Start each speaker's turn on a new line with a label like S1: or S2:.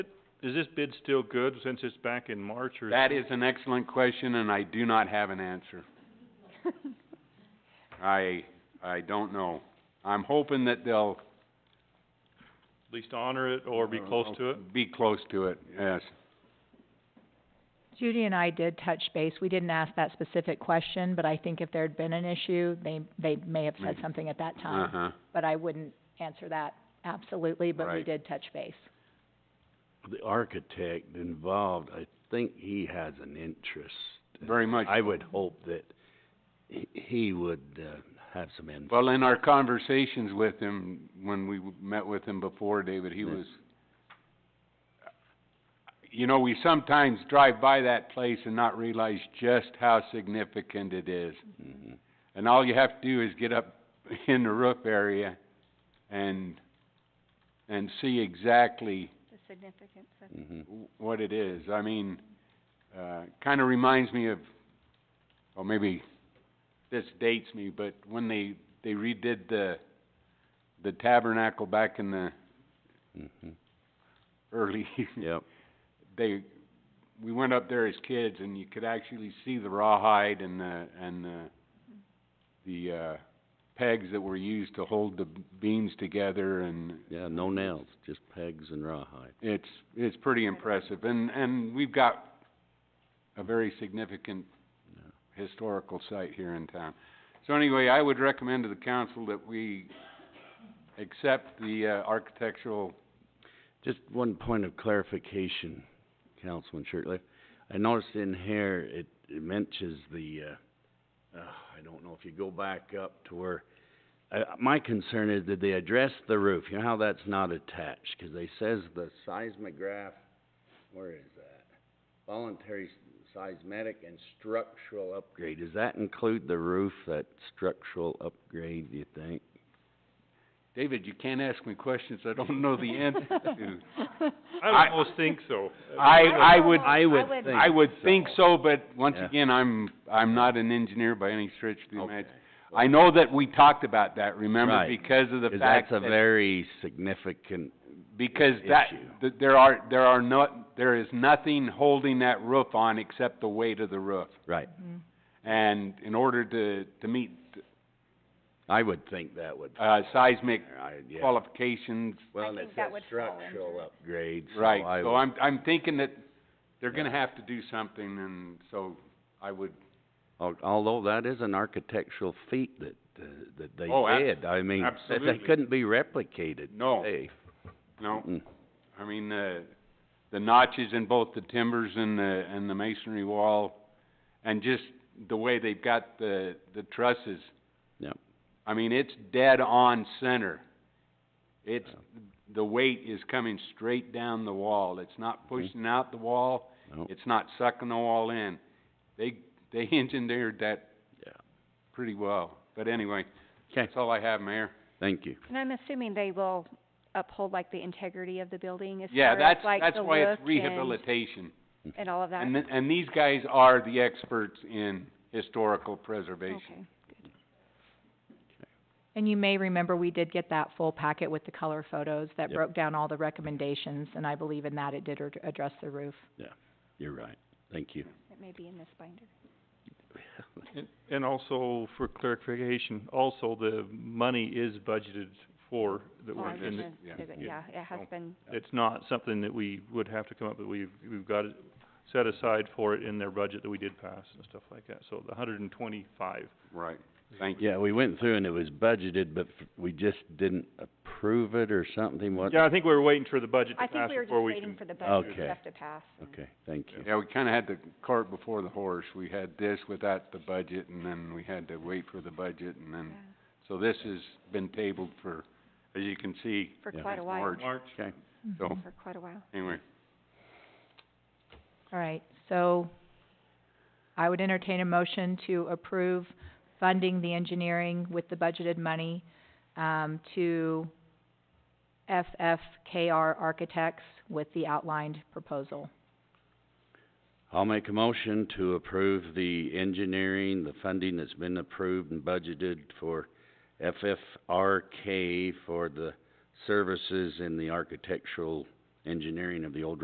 S1: is this bid still good since it's back in March or?
S2: That is an excellent question, and I do not have an answer. I, I don't know. I'm hoping that they'll.
S1: At least honor it or be
S2: Oh,
S1: close to it?
S2: Be close to it, yes.
S3: Judy and I did touch base, we didn't ask that specific question, but I think if there'd been an issue, they, they may have said
S2: Maybe.
S3: something at that time.
S2: Mm-hmm. Uh-huh.
S3: But I wouldn't answer that absolutely, but we
S2: Right.
S3: did touch base.
S4: the architect involved, I think he has an interest.
S2: Very much.
S4: I would hope that he, he would, uh, have some input.
S2: Well, in our conversations with him, when we w- met with him before, David, he
S4: Yeah.
S2: was, you know, we sometimes drive by that place and not realize just how significant it is.
S4: Mhm.
S2: And all you have to do is get up in the roof area and, and see exactly
S5: the significance of
S4: Mhm.
S2: w- what it is. I mean, uh, kinda reminds me of, well, maybe this dates me, but when they, they redid the, the tabernacle back in the
S4: Mhm.
S2: early,
S4: Yep,
S2: they, we went up there as kids and you could actually see the rawhide and the, and the, the, uh, pegs that were used to hold the beams together and,
S4: yeah, no nails, just pegs and rawhide.
S2: It's, it's pretty impressive, and, and we've got a very significant historical site here in town. So anyway, I would recommend to the council that we accept the, uh, architectural,
S4: Just one point of clarification, Councilman Shirtley. I noticed in here, it, it mentions the, uh, uh, I don't know if you go back up to where, uh, my concern is that they address the roof, you know how that's not attached? Cause they says the seismograph, where is that? Voluntary s- seismic and structural upgrade, does that include the roof, that structural upgrade, do you think?
S2: David, you can't ask me questions I don't know the answer to.
S1: I
S2: I-
S1: almost think so.
S2: I, I would,
S4: I would think
S2: I would think so, but once
S4: Yeah.
S2: again, I'm, I'm not an engineer by any stretch of the
S4: Okay.
S2: imagination. I know that we talked about that, remember,
S4: Right.
S2: because of the
S4: Cause
S2: fact
S4: that's
S2: that
S4: a very significant
S2: Because that,
S4: issue.
S2: th- there are, there are no, there is nothing holding that roof on except the weight of the roof.
S4: Right,
S2: And in order to, to meet,
S4: I would think that would,
S2: uh, seismic
S4: I, yeah,
S2: qualifications,
S4: well,
S5: think
S4: it's
S5: that
S4: a
S5: would fall
S4: structural upgrade, so
S2: right,
S4: I
S2: so
S4: would-
S2: I'm, I'm thinking that they're gonna have to do something, and so I would,
S4: al- although that is an architectural feat that, uh, that they
S2: Oh, ab-
S4: did, I mean, that-
S2: absolutely.
S4: that couldn't be replicated
S2: No.
S4: today.
S2: no,
S4: Mm.
S2: I mean, uh, the notches in both the timbers and the, and the masonry wall, and just the way they've got the, the trusses.
S4: Yep.
S2: I mean, it's dead on center. It's, the weight is coming straight down the wall. It's not
S4: Mm-hmm.
S2: pushing out the wall,
S4: No,
S2: it's not sucking the wall in. They, they engineered that
S4: Yeah.
S2: pretty well. But anyway,
S4: 'Kay.
S2: that's all I have, Mayor.
S4: thank you.
S5: And I'm assuming they will uphold like the integrity of the building as
S2: Yeah,
S5: far
S2: that's,
S5: as like
S2: that's
S5: the
S2: why
S5: look
S2: it's
S5: and,
S2: rehabilitation.
S5: and all of that?
S2: And th- and these guys are the experts in historical preservation.
S5: Okay.
S3: And you may remember, we did get that full packet with the color photos that
S4: Yep.
S3: broke down all the recommendations, and I believe in that it did ad- address the roof.
S4: You're right, thank you.
S5: It may be in this binder.
S1: And- And also for clarification, also the money is budgeted for, that
S5: Oh,
S1: we're,
S5: I was
S1: in the-
S5: gonna
S2: yeah,
S5: say that,
S1: yeah.
S5: yeah, it has
S1: Oh.
S5: been,
S1: it's not something that we would have to come up, with. we've, we've got it set aside for it in their budget that we did pass and stuff like that. So the hundred and twenty-five
S2: Right, thank you.
S4: Yeah, we went through and it was budgeted, but f- we just didn't approve it or something, what?
S1: Yeah, I think we were waiting for the budget
S5: I
S1: to pass
S5: think we were just
S1: before we
S5: waiting
S1: can,
S5: for the budget
S4: Okay.
S5: stuff to pass. and-
S4: Okay, thank you.
S2: Yeah, we kinda had the cart before the horse. We had this without the budget, and then we had to wait for the budget, and then,
S5: yeah,
S2: so this has been tabled for, as you can see,
S5: For
S4: Yeah.
S5: quite a
S2: since
S5: while,
S2: March.
S1: March.
S4: Okay,
S2: So,
S5: for quite a while.
S2: anyway,
S3: All right, so I would entertain a motion to approve funding the engineering with the budgeted money, um, to FFKR Architects with the outlined proposal.
S4: I'll make a motion to approve the engineering, the funding that's been approved and budgeted for FFRK for the services in the architectural engineering of the old